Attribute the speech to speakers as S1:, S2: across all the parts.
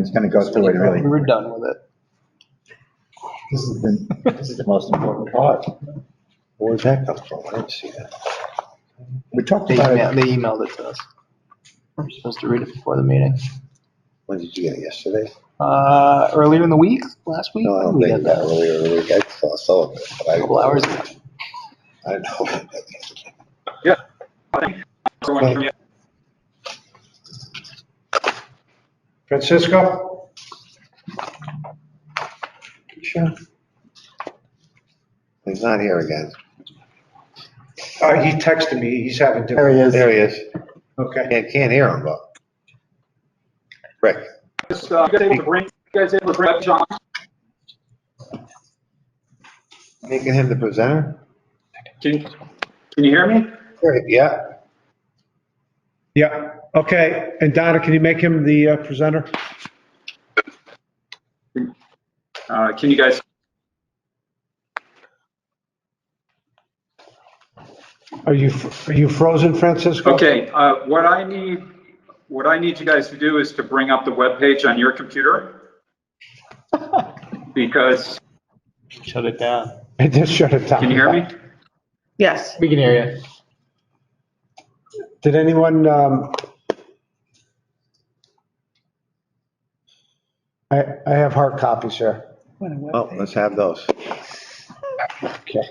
S1: It's going to go through it really.
S2: We're done with it.
S1: This is the, this is the most important part.
S3: Where did that come from? I didn't see that.
S1: We talked
S2: They
S1: about it.
S2: emailed, they emailed it to us. We're supposed to read it before the meeting.
S3: When did you get it? Yesterday?
S2: Uh, earlier in the week, last week?
S3: No, I don't
S2: we
S3: think
S2: got
S3: Oh, that earlier, in the week. I saw some of it, but I.
S2: A couple hours.
S3: I don't know.
S4: Francisco? Sure.
S3: He's not here again.
S4: Uh, he texted me, he's having
S1: There
S4: difficulty.
S1: he is.
S3: There he is.
S4: Okay.
S3: Can't, can't hear him, but. Rick,
S5: Just, uh, you guys able to bring, you guys able to bring up John?
S3: making him the presenter?
S5: Can, can you hear me?
S3: Great, yeah.
S4: Yeah, okay. And Donna, can you make him the uh, presenter?
S5: Uh, can you guys,
S4: Are you, f- are you frozen, Francisco?
S5: okay, uh, what I need, what I need you guys to do is to bring up the webpage on your computer. Because,
S2: Shut it down.
S4: I just shut it down.
S5: can you hear me?
S6: Yes.
S2: We can hear you.
S4: Did anyone, um, I, I have hard copies here.
S3: Well, let's have those.
S4: Okay.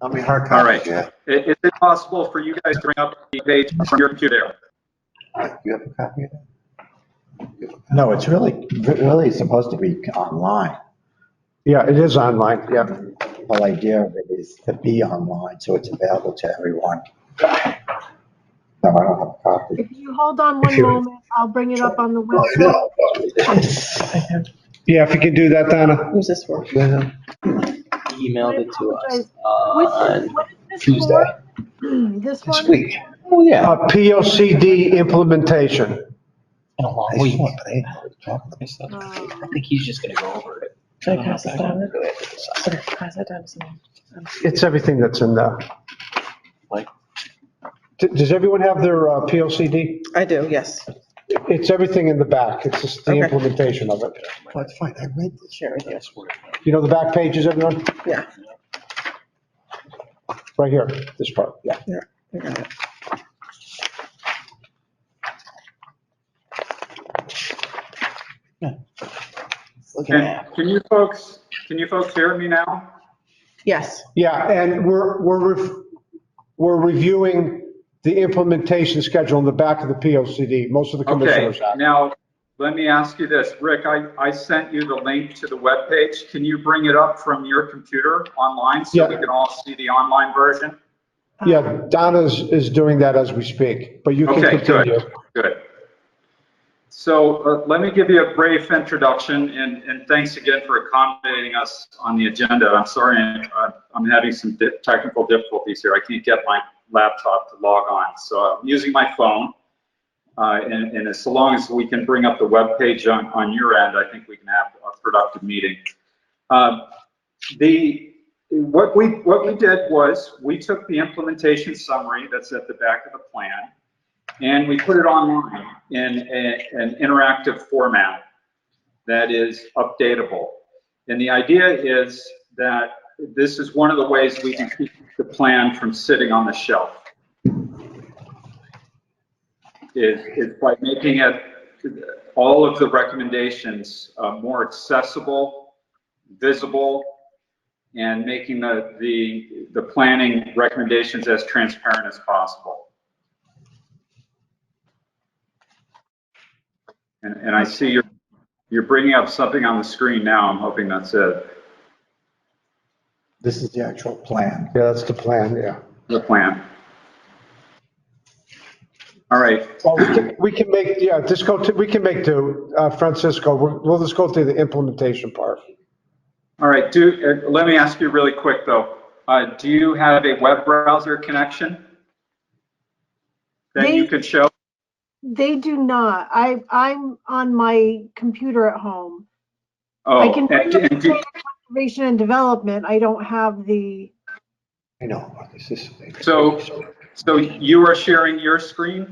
S3: How many hard
S5: All right.
S3: copies you have?
S5: I- Is it possible for you guys to bring up the page from your computer?
S3: You have a copy of that?
S1: No, it's really, really supposed to be online.
S4: Yeah, it is online, yeah.
S1: The Whole idea of it is to be online, so it's available to everyone. No, I don't have a copy.
S6: If you Oh, hold on one moment, I'll bring it up on the website.
S3: No.
S4: Yeah, if you can do that, Donna.
S6: Who's this for?
S2: Emailed it to us
S6: Which,
S2: on
S6: what is this
S2: Tuesday.
S6: for? This
S3: This
S6: one? uh,
S3: week.
S2: Oh, yeah.
S4: Uh, POCD implementation.
S2: In a long
S3: I
S2: week.
S3: saw it, but I didn't know what to talk
S2: I saw it.
S6: Uh,
S2: I think he's just gonna go over it.
S7: Should I pass it down?
S2: Go ahead and decide.
S7: Okay, pass that down to someone.
S4: It's everything that's in there.
S2: Like-
S4: D- Does everyone have their uh, PLCD?
S7: I do, yes.
S4: It's everything in the back. It's just the
S7: Okay.
S4: implementation of it.
S3: about. Well, it's fine. I read this.
S7: Share with you.
S4: You know the back pages, everyone?
S7: Yeah,
S4: Right here, this part, yeah.
S7: yeah, I got it. Look at
S5: Can,
S7: that.
S5: can you folks, can you folks hear me now?
S7: Yes,
S4: Yeah, and we're, we're, ref- we're reviewing the implementation schedule in the back of the PLCD. Most of the
S5: Okay,
S4: commissioners have.
S5: now, let me ask you this, Rick, I, I sent you the link to the webpage. Can you bring it up from your computer online so we
S4: Yeah.
S5: can all see the online version?
S4: Yeah, Donna's is doing that as we speak, but you can
S5: Okay,
S4: continue.
S5: good, good. So uh, let me give you a brief introduction, and, and thanks again for accommodating us on the agenda. I'm sorry, uh, I'm having some di- technical difficulties here. I can't get my laptop to log on, so I'm using my phone. Uh, And, and as long as we can bring up the webpage on, on your end, I think we can have a productive meeting. Um, The, what we, what we did was, we took the implementation summary that's at the back of the plan, and we put it online in a- an interactive format that is updatable. And the idea is that this is one of the ways we can keep the plan from sitting on the shelf. Is, is by making it, all of the recommendations uh, more accessible, visible, and making the, the, the planning recommendations as transparent as possible. And, and I see you're, you're bringing up something on the screen now. I'm hoping that's it,
S1: This is the actual plan.
S4: Yeah, that's the plan, yeah.
S5: the plan. All right,
S4: Well, we can, we can make, yeah, just go to, we can make to, uh, Francisco, we'll, we'll just go through the implementation part.
S5: all right, do, uh, let me ask you really quick though. Uh, do you have a web browser connection? That you
S6: Me?
S5: could show?
S6: They do not. I, I'm on my computer at home. I
S5: Oh,
S6: can
S5: and-
S6: bring up
S5: and do-
S6: the conservation and development. I don't have the.
S3: I know, but this is.
S5: So- so you are sharing your screen?